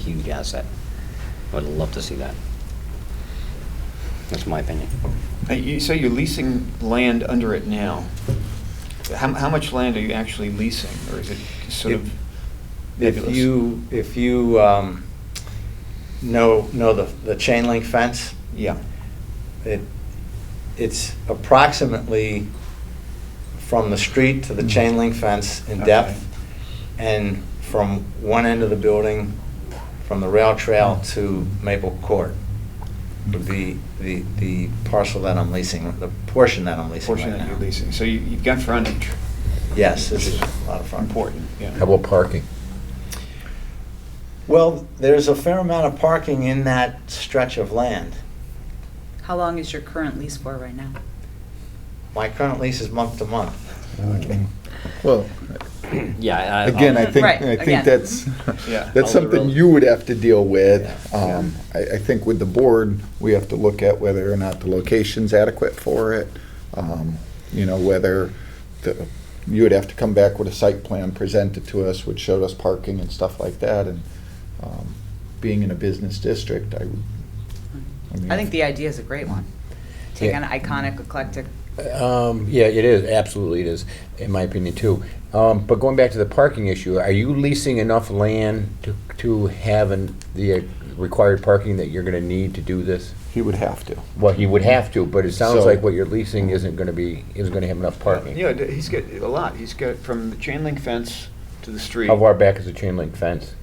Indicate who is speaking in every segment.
Speaker 1: huge asset. I Would love to see that. That's my opinion.
Speaker 2: Uh, You say you're leasing land under it now. How, how much land are you actually leasing, or is it sort of
Speaker 3: If
Speaker 2: nebulous?
Speaker 3: you, if you um, know, know the, the chain link fence,
Speaker 2: Yeah,
Speaker 3: it, it's approximately from the street to the chain link fence in
Speaker 2: Mm. Okay.
Speaker 3: depth, and from one end of the building, from the rail trail
Speaker 2: Mm.
Speaker 3: to Maple Court, would be the, the parcel that I'm leasing, the portion that I'm leasing right
Speaker 2: portion
Speaker 3: now.
Speaker 2: that you're leasing. So you, you've got frontage,
Speaker 3: Yes, this is a lot of fun.
Speaker 2: important, yeah.
Speaker 4: How about parking?
Speaker 3: Well, there's a fair amount of parking in that stretch of land.
Speaker 5: How long is your current lease for right now?
Speaker 3: My current lease is month to month.
Speaker 4: Well,
Speaker 1: Yeah. I- I-
Speaker 4: again, I think,
Speaker 5: Right,
Speaker 4: I think
Speaker 5: again.
Speaker 4: that's,
Speaker 2: Yeah.
Speaker 4: that's
Speaker 1: All the
Speaker 4: something
Speaker 1: roads.
Speaker 4: you would have to deal with.
Speaker 3: Yeah.
Speaker 4: Um, I, I think with the board, we have to look at whether or not the location's adequate for it. Um, You know, whether the, you would have to come back with a site plan presented to us, which showed us parking and stuff like that, and, um, being in a business district, I would. mean,
Speaker 5: I think the idea is a great one. Take
Speaker 6: Yeah.
Speaker 5: an iconic, eclectic,
Speaker 6: Um, yeah, it is, absolutely it is, in my opinion too. Um, but going back to the parking issue, are you leasing enough land to, to have an, the uh, required parking that you're gonna need to do this?
Speaker 4: He would have to.
Speaker 6: Well, you would have to, but it sounds
Speaker 4: So-
Speaker 6: like what you're leasing isn't gonna be, isn't gonna have enough parking.
Speaker 2: Yeah, d- he's got a lot. He's got from the chain link fence to the street.
Speaker 6: How far back is the chain link fence?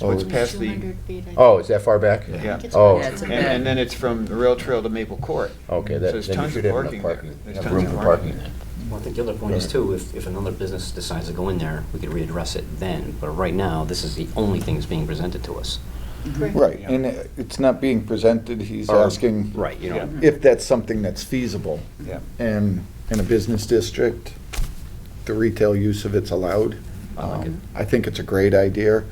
Speaker 4: What's
Speaker 7: Approximately
Speaker 2: past the-
Speaker 7: 200 feet. I think.
Speaker 6: Oh, is that far back?
Speaker 4: Yeah.
Speaker 2: Yeah.
Speaker 6: Oh.
Speaker 5: Yeah, it's a
Speaker 2: And,
Speaker 5: bit.
Speaker 2: and then it's from the rail trail to Maple Court.
Speaker 3: Oh.
Speaker 6: Okay,
Speaker 2: So
Speaker 6: that,
Speaker 2: there's
Speaker 6: then you
Speaker 2: tons
Speaker 6: should
Speaker 2: of
Speaker 6: have
Speaker 2: parking
Speaker 6: enough parking,
Speaker 2: there. There's
Speaker 6: enough
Speaker 2: tons
Speaker 6: room
Speaker 2: of
Speaker 6: for
Speaker 2: parking.
Speaker 6: parking then.
Speaker 8: Well, I think the other point is too, if, if another business decides to go in there, we could readdress it then, but right now, this is the only thing that's being presented to us.
Speaker 7: Correct.
Speaker 4: Right, and it- it's not being presented, he's
Speaker 1: Or-
Speaker 4: asking.
Speaker 1: Right, you know,
Speaker 4: If that's something that's feasible.
Speaker 2: Yeah.
Speaker 4: And in a business district, the retail use of it's allowed.
Speaker 8: I like it.
Speaker 4: Um, I think it's a great idea.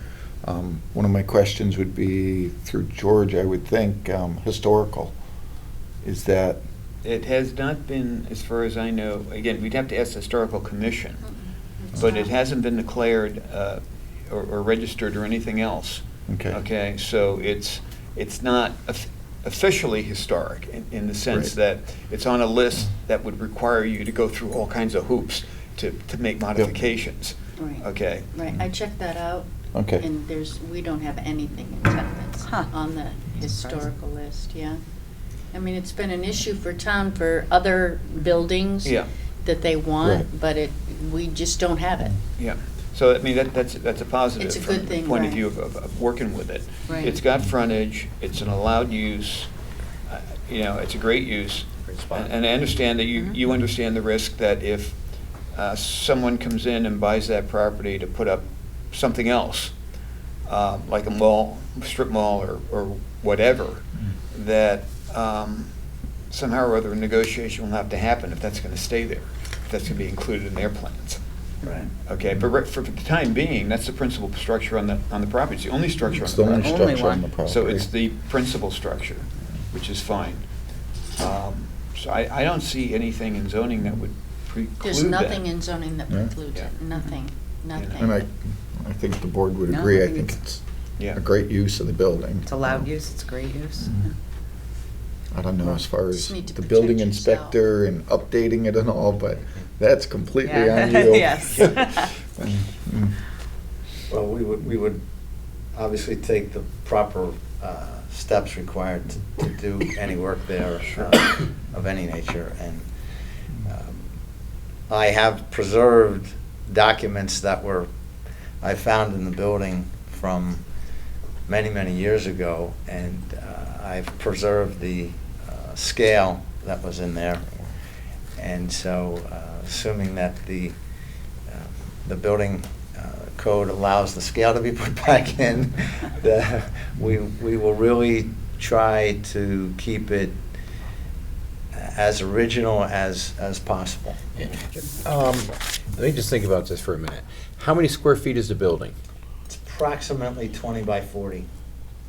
Speaker 4: Um, One of my questions would be, through George, I would think, um, historical. Is that,
Speaker 2: It has not been, as far as I know, again, we'd have to ask the historical commission,
Speaker 7: It's
Speaker 2: but it
Speaker 7: not.
Speaker 2: hasn't been declared uh, or or registered or anything else.
Speaker 4: okay.
Speaker 2: Okay, so it's, it's not of- officially historic in, in the sense that
Speaker 4: Right.
Speaker 2: it's on a list that would require you to go through all kinds of hoops to, to make modifications.
Speaker 7: Right.
Speaker 2: Okay,
Speaker 7: Right, I checked that out.
Speaker 4: Okay.
Speaker 7: And there's, we don't have anything in town that's
Speaker 5: Huh.
Speaker 7: on the
Speaker 5: Surprising.
Speaker 7: historical list, yeah. I mean, it's been an issue for town for other buildings
Speaker 2: yeah,
Speaker 7: that they
Speaker 4: Right.
Speaker 7: want, but it, we just don't have it.
Speaker 2: yeah. So, I mean, that, that's, that's a positive
Speaker 7: It's a
Speaker 2: from
Speaker 7: good
Speaker 2: the
Speaker 7: thing,
Speaker 2: point of
Speaker 7: right.
Speaker 2: view of, of- of working with it.
Speaker 7: Right.
Speaker 2: It's got frontage, it's an allowed use, uh, you know, it's a great use.
Speaker 8: Great spot.
Speaker 2: And and I understand that you,
Speaker 7: Mhm.
Speaker 2: you understand the risk that if uh, someone comes in and buys that property to put up something else, uh, like a mall, strip mall or, or whatever,
Speaker 4: Mm.
Speaker 2: that um, somehow or other a negotiation will have to happen if that's going to stay there, if that's going to be included in their plans.
Speaker 3: Right.
Speaker 2: Okay, but right- for for the time being, that's the principal structure on the, on the property. It's the only structure on
Speaker 4: It's
Speaker 2: the
Speaker 4: the
Speaker 2: property.
Speaker 4: only
Speaker 5: Only
Speaker 4: structure on
Speaker 5: one.
Speaker 4: the property.
Speaker 2: So it's the principal structure, which is fine. Um, So I, I don't see anything in zoning that would preclude that.
Speaker 7: There's nothing in zoning that
Speaker 4: Yeah.
Speaker 7: precludes it,
Speaker 2: Yeah.
Speaker 7: nothing, nothing.
Speaker 4: And I, I think the board would
Speaker 5: No, I
Speaker 4: agree. I
Speaker 5: think
Speaker 4: think
Speaker 5: it's-
Speaker 4: it's
Speaker 2: Yeah.
Speaker 4: a great use of the building. Um,
Speaker 5: it's allowed use, it's great use.
Speaker 4: Mhm. I don't know as far as
Speaker 7: Just need to
Speaker 4: the building
Speaker 7: protect yourself.
Speaker 4: inspector and updating it and all, but that's completely
Speaker 5: Yeah.
Speaker 4: on you.
Speaker 5: Yes.
Speaker 4: Mm.
Speaker 3: Well, we would, we would obviously take the proper uh, steps required to- to do any work there uh, of any nature, and um, I have preserved documents that were, I found in the building from many, many years ago, and uh, I've preserved the uh, scale that was in there. And so, uh, assuming that the, uh, the building uh, code allows the scale to be put back in, the- we, we will really try to keep it as original as, as possible.
Speaker 6: Um, let me just think about this for a minute. How many square feet is the building?
Speaker 3: It's approximately 20 by 40.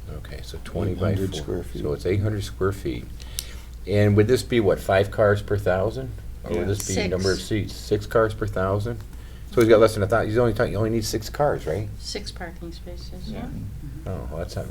Speaker 6: Okay, so twenty by
Speaker 4: 800
Speaker 6: four,
Speaker 4: square feet.
Speaker 6: so it's eight hundred square feet. And would this be what, five cars per thousand? Or
Speaker 2: Yeah.
Speaker 6: would this be number of
Speaker 7: Six.
Speaker 6: seats, six cars per thousand? It's So he's got less than a thousand, he's only talking, you only need six cars, right?
Speaker 7: Six parking spaces, yeah.
Speaker 6: Oh, well, that's not